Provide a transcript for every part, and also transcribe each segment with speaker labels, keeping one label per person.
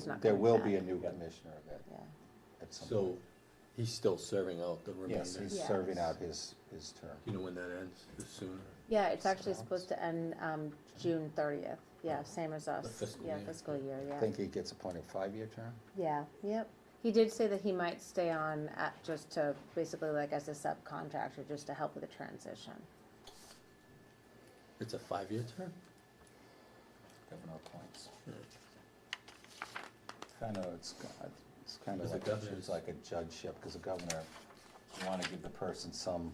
Speaker 1: It's not
Speaker 2: There
Speaker 1: coming
Speaker 2: will be a
Speaker 1: back.
Speaker 2: new commissioner of that
Speaker 1: Yeah,
Speaker 2: at some point.
Speaker 3: So he's still serving out the remainder?
Speaker 2: Yes, he's
Speaker 1: Yes.
Speaker 2: serving out his, his term.
Speaker 3: Do you know when that ends, the sooner?
Speaker 1: yeah, it's actually
Speaker 2: Sounds-
Speaker 1: supposed to end, um, June thirtieth, yeah, same as us,
Speaker 3: fiscal
Speaker 1: yeah,
Speaker 3: year.
Speaker 1: fiscal year,
Speaker 2: I
Speaker 1: yeah,
Speaker 2: think he gets appointed five-year term?
Speaker 1: yeah, yep. He did say that he might stay on at, just to, basically like as a subcontractor, just to help with the transition.
Speaker 3: It's a five-year term?
Speaker 2: Governor appoints. Kind of, it's, it's kind of
Speaker 3: Is it
Speaker 2: like, a-
Speaker 3: governor's?
Speaker 2: it's like a judgeship, because the governor, you want to give the person some,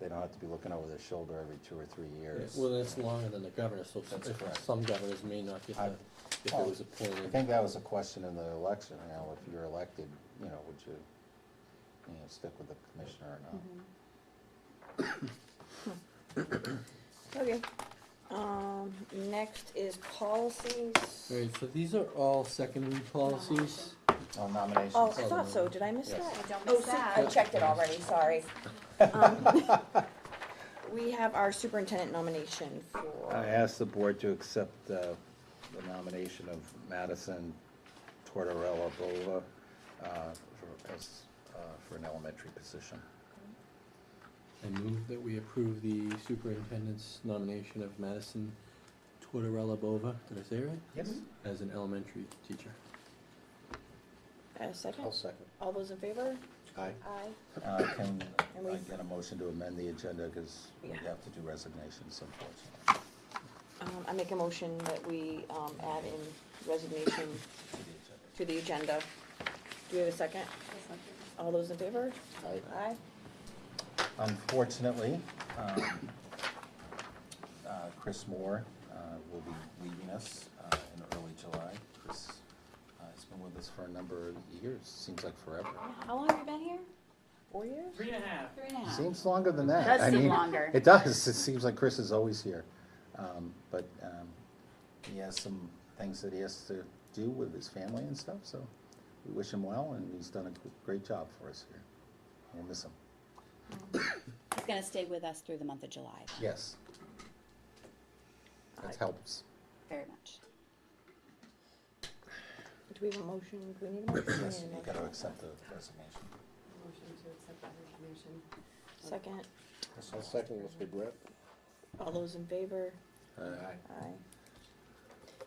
Speaker 2: they don't have to be looking over their shoulder every two or three years.
Speaker 3: Well, that's longer than the governor, so some-
Speaker 2: That's correct.
Speaker 3: some governors may not get
Speaker 2: I-
Speaker 3: the, if it
Speaker 2: well,
Speaker 3: was
Speaker 2: I
Speaker 3: appointed.
Speaker 2: think that was a question in the election, you know, if you're elected, you know, would you, you know, stick with the commissioner or not?
Speaker 1: Mm-hmm.
Speaker 4: Okay, um, next is policies.
Speaker 3: All right, so these are all secondary policies.
Speaker 2: Oh,
Speaker 4: Oh,
Speaker 2: nominations.
Speaker 4: I thought so, did I miss
Speaker 2: Yes.
Speaker 4: that?
Speaker 5: I don't
Speaker 4: Oh,
Speaker 5: miss
Speaker 4: see,
Speaker 5: that.
Speaker 4: I checked it already, sorry. Um, We have our superintendent nomination
Speaker 2: I
Speaker 4: for,
Speaker 2: asked the board to accept uh, the nomination of Madison Tortorella Bova uh, for as, uh, for an elementary position.
Speaker 3: I move that we approve the superintendent's nomination of Madison Tortorella Bova, did I say it right?
Speaker 2: Yes.
Speaker 3: As an elementary teacher.
Speaker 4: a second,
Speaker 2: second.
Speaker 4: all those in favor?
Speaker 2: Aye.
Speaker 4: Aye.
Speaker 2: Can
Speaker 4: And
Speaker 2: I
Speaker 4: we-
Speaker 2: get a motion to amend the agenda, because we
Speaker 4: Yeah.
Speaker 2: have to do resignations unfortunately.
Speaker 4: Um, I make a motion that we, um, add in resignation
Speaker 2: to the agenda.
Speaker 4: to the agenda. Do we have a second? All those in favor?
Speaker 2: Aye.
Speaker 4: Aye.
Speaker 2: Unfortunately, um, uh, Chris Moore uh, will be leaving us uh, in early July. Chris uh, has been with us for a number of years, seems like forever.
Speaker 4: How long have you been here? Four years?
Speaker 6: Three and a half.
Speaker 5: Three and a half.
Speaker 2: Seems longer than that.
Speaker 5: Does
Speaker 2: I
Speaker 5: seem
Speaker 2: mean,
Speaker 5: longer.
Speaker 2: It does. It seems like Chris is always here. Um, But um, he has some things that he has to do with his family and stuff, so we wish him well, and he's done a g- great job for us here. We'll miss him.
Speaker 5: He's gonna stay with us through the month of July,
Speaker 2: Yes. That helps.
Speaker 5: very much.
Speaker 4: Do we have a motion? Do we need a motion? We
Speaker 2: Yes,
Speaker 4: need a
Speaker 2: you
Speaker 4: motion.
Speaker 2: gotta accept the resignation.
Speaker 7: Motion to accept that resignation.
Speaker 4: Second,
Speaker 8: I'll second with regret.
Speaker 4: all those in favor? Aye.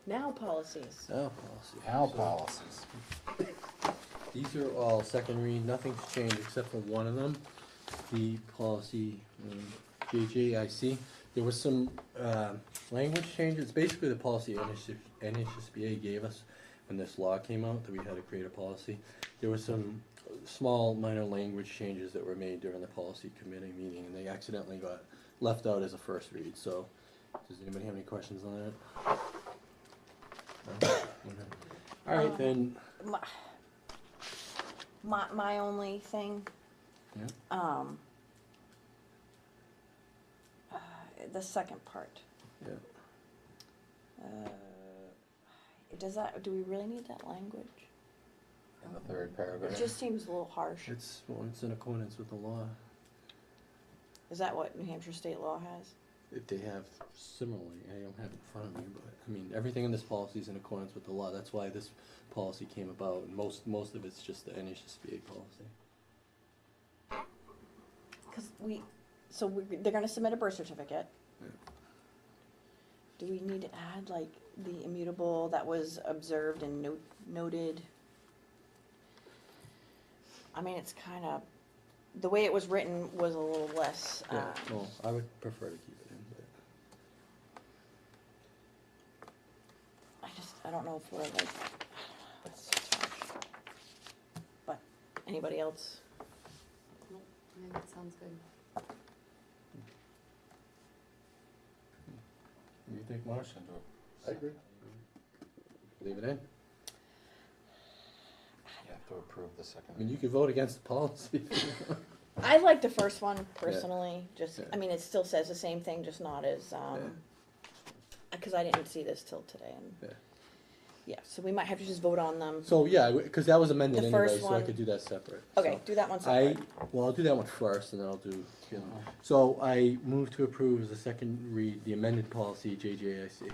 Speaker 4: Now policies.
Speaker 3: Now Oh, policy.
Speaker 2: Our
Speaker 3: So-
Speaker 2: policies.
Speaker 3: These are all secondary, nothing's changed except for one of them, the policy um, JJIC. There was some um, language changes, basically the policy NHS NHSBA gave us when this law came out, that we had to create a policy. There was some small minor language changes that were made during the policy committee meeting, and they accidentally got left out as a first read, so does anybody have any questions on that? No? Okay. All right, then.
Speaker 4: My, my, my only thing,
Speaker 3: Yeah.
Speaker 4: um, uh, the second part,
Speaker 3: Yeah.
Speaker 4: uh, does that, do we really need that language?
Speaker 2: In the third
Speaker 4: It
Speaker 2: paragraph.
Speaker 4: just seems a little harsh.
Speaker 3: It's, well, it's in accordance with the law.
Speaker 4: Is that what New Hampshire state law has?
Speaker 3: If they have similarly, I don't have it in front of me, but, I mean, everything in this policy is in accordance with the law. That's why this policy came about. and Most, most of it's just the NHSBA policy.
Speaker 4: Cause we, so we, they're gonna submit a birth certificate.
Speaker 3: Yeah.
Speaker 4: Do we need to add like the immutable that was observed and no- noted? I mean, it's kinda, the way it was written was a little less,
Speaker 3: Yeah,
Speaker 4: um,
Speaker 3: well, I would prefer to keep it in, but.
Speaker 4: I just, I don't know if we're like, I don't know, it's just harsh. But, anybody else?
Speaker 7: Nope, I think that sounds good.
Speaker 3: You think, Marsh?
Speaker 2: Motion to.
Speaker 3: I agree. Leave it in?
Speaker 2: You have to approve the
Speaker 3: I mean, you
Speaker 2: second.
Speaker 3: could vote against the policy.
Speaker 4: I like the first one personally, just,
Speaker 3: Yeah.
Speaker 4: I mean, it still says the same thing, just not as,
Speaker 3: Yeah.
Speaker 4: um, because I didn't see this till today,
Speaker 3: Yeah.
Speaker 4: and, yeah, so we might have to just vote on them.
Speaker 3: So, yeah, because that was amended
Speaker 4: The
Speaker 3: anyway,
Speaker 4: first
Speaker 3: so I
Speaker 4: one.
Speaker 3: could do that separate.
Speaker 4: Okay,
Speaker 3: so.
Speaker 4: do that one
Speaker 3: I,
Speaker 4: separate.
Speaker 3: well, I'll do that one first, and then I'll do, the other one. so I move to approve as a second read the amended policy JJIC.